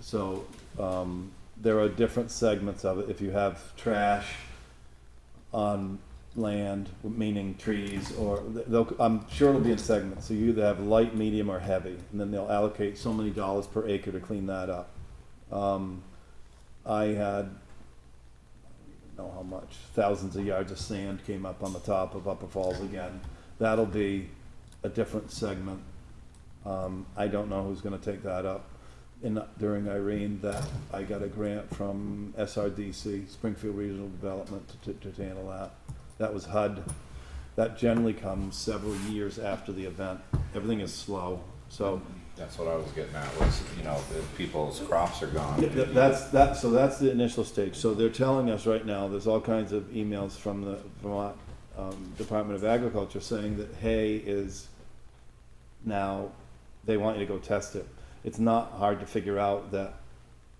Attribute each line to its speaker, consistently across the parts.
Speaker 1: So, um, there are different segments of it. If you have trash on land, meaning trees, or they'll, I'm sure it'll be in segments. So you either have light, medium, or heavy, and then they'll allocate so many dollars per acre to clean that up. Um, I had, I don't know how much, thousands of yards of sand came up on the top of Upper Falls again. That'll be a different segment. Um, I don't know who's gonna take that up. And during Irene, that, I got a grant from SRDC, Springfield Regional Development, to, to to handle that. That was HUD. That generally comes several years after the event. Everything is slow, so.
Speaker 2: That's what I was getting at, was, you know, if people's crops are gone.
Speaker 1: Yeah, that- That's, that, so that's the initial stage. So they're telling us right now, there's all kinds of emails from the Vermont um, Department of Agriculture saying that hay is now, they want you to go test it. It's not hard to figure out that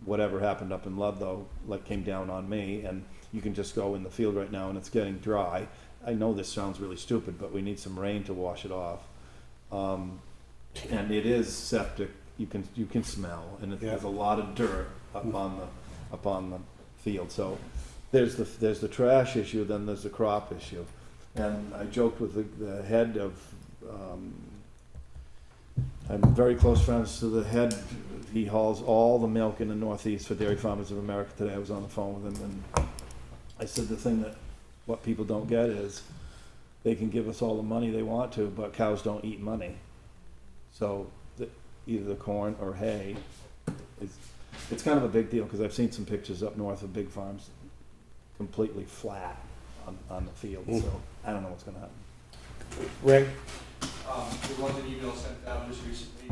Speaker 1: whatever happened up in Ludlow, like, came down on me, and you can just go in the field right now and it's getting dry. I know this sounds really stupid, but we need some rain to wash it off. Um, and it is septic, you can, you can smell, and it- there's a lot of dirt up on the, up on the field, so there's the, there's the trash issue, then there's the crop issue. And I joked with the, the head of, um, I'm very close friends to the head, he hauls all the milk in the Northeast for Dairy Farmers of America today, I was on the phone with him, and I said the thing that, what people don't get is, they can give us all the money they want to, but cows don't eat money. So the, either the corn or hay is, it's kind of a big deal because I've seen some pictures up north of big farms completely flat on, on the field. So I don't know what's going to happen.
Speaker 3: Rick,
Speaker 4: Um, there was an email sent out just recently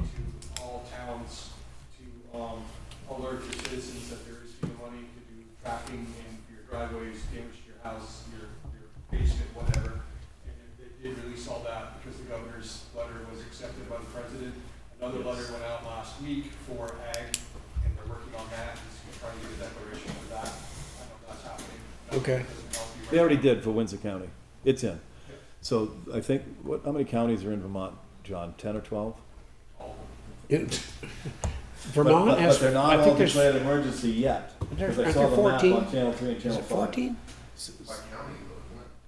Speaker 4: to all towns to, um, alert your citizens that there is FEMA money to do tracking in your driveways, damage to your house, your, your basement, whatever. And it, it did release all that because the governor's letter was accepted by the president. Another letter went out last week for ag, and they're working on that, and trying to get a declaration for that. I know that's happening.
Speaker 3: Okay.
Speaker 4: Doesn't help you right
Speaker 1: They already
Speaker 4: now.
Speaker 1: did for Windsor County. It's in. So I think, what, how many counties are in Vermont, John? 10 or 12?
Speaker 4: All of them.
Speaker 3: it-
Speaker 1: But-
Speaker 3: Vermont
Speaker 1: but,
Speaker 3: has,
Speaker 1: but they're not
Speaker 3: I
Speaker 1: all
Speaker 3: think there's,
Speaker 1: declared emergency yet. Because I
Speaker 3: aren't
Speaker 1: saw
Speaker 3: there
Speaker 1: the map
Speaker 3: 14?
Speaker 1: on Channel 3 and
Speaker 3: is
Speaker 1: Channel
Speaker 3: it
Speaker 1: 5.
Speaker 3: fourteen?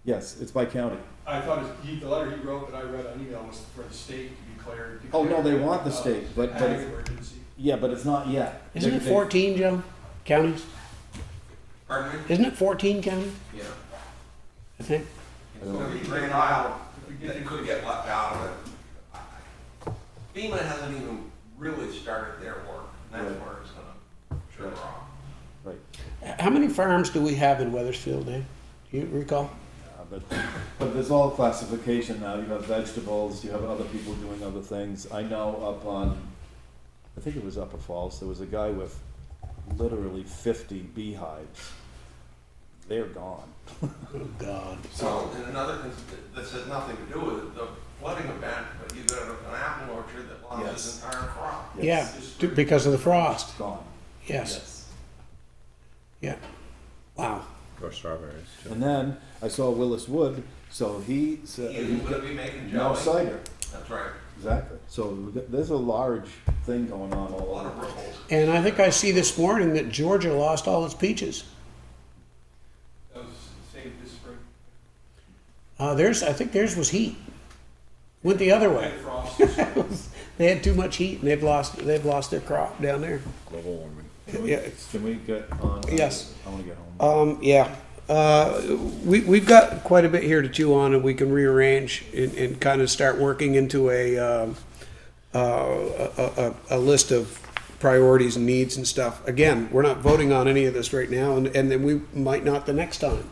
Speaker 1: Yes, it's by county.
Speaker 4: I thought his- he, the letter he wrote that I read on email was for the state to declare.
Speaker 1: Oh, no, they
Speaker 4: declare,
Speaker 1: want the
Speaker 4: uh,
Speaker 1: state, but- but
Speaker 4: ag
Speaker 1: it's-
Speaker 4: emergency.
Speaker 1: Yeah, but it's not yet.
Speaker 3: Isn't
Speaker 1: They-
Speaker 3: it
Speaker 1: they-
Speaker 3: fourteen, Joe? Counties?
Speaker 4: Pardon
Speaker 3: Isn't it fourteen counties?
Speaker 5: Yeah.
Speaker 3: I think.
Speaker 5: So we ran out, that could get left out of it. FEMA hasn't even really started their work, and that's where it's gonna trigger off.
Speaker 1: Right.
Speaker 3: H- How many farms do we have in Weathersfield, Dan? Do you recall?
Speaker 1: Uh, But, but there's all classification now, you have vegetables, you have other people doing other things. I know up on, I think it was Upper Falls, there was a guy with literally fifty beehives. They're gone.
Speaker 3: Oh, God.
Speaker 5: So, and another, thing this has nothing to do with the flooding event, but you got an apple orchard that lost
Speaker 1: Yes.
Speaker 5: its entire crop.
Speaker 3: Yeah,
Speaker 1: Yes,
Speaker 3: t- because of the frost.
Speaker 1: Gone,
Speaker 3: Yes,
Speaker 1: yes.
Speaker 3: yeah. Wow.
Speaker 2: Or strawberries.
Speaker 1: And then I saw Willis Wood, so he
Speaker 5: You
Speaker 1: said,
Speaker 5: would be making
Speaker 1: no
Speaker 5: jelly.
Speaker 1: cider,
Speaker 5: That's right,
Speaker 1: exactly. So we got- there's a large thing going on
Speaker 5: a
Speaker 1: all
Speaker 5: lot
Speaker 1: over.
Speaker 5: of ripples.
Speaker 3: And I think I see this morning that Georgia lost all its peaches.
Speaker 4: That was saved this spring.
Speaker 3: Uh, theirs, I think theirs was heat. Went the other way.
Speaker 4: Had frost this spring.
Speaker 3: They had too much heat and they've lost, they've lost their crop down there.
Speaker 2: Global warming.
Speaker 3: Yeah, it's-
Speaker 1: Can we get on?
Speaker 3: Yes.
Speaker 1: I wanna get home.
Speaker 3: Um, yeah, uh, we, we've got quite a bit here to chew on and we can rearrange and, and kind of start working into a, um, uh, a, a, a list of priorities and needs and stuff. Again, we're not voting on any of this right now and, and then we might not the next time.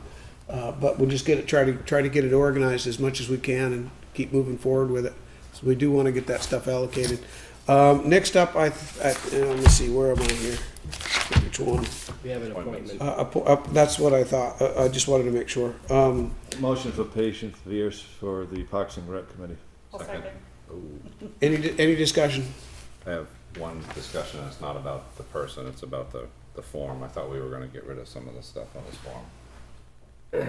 Speaker 3: Uh, but we'll just get it, try to, try to get it organized as much as we can and keep moving forward with it. So we do want to get that stuff allocated. Um, next up, I, I, uh, let me see, where am I here? Which one?
Speaker 6: We have an
Speaker 2: Appointments.
Speaker 6: appointment.
Speaker 3: Uh, appo- uh, that's what I thought. Uh, I just wanted to make sure. Um,
Speaker 1: Motion for Patience Pierce for the Parks and Rec Committee.
Speaker 2: Second.
Speaker 3: any di- any discussion?
Speaker 2: I have one discussion, it's not about the person, it's about the, the form. I thought we were gonna get rid of some of the stuff on this form.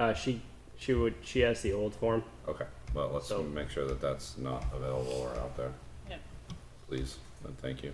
Speaker 6: Uh, she she would she has the old form.
Speaker 2: Okay, well, let's
Speaker 6: So-
Speaker 2: make sure that that's not available or out there.
Speaker 7: Yeah.
Speaker 2: Please, and thank you.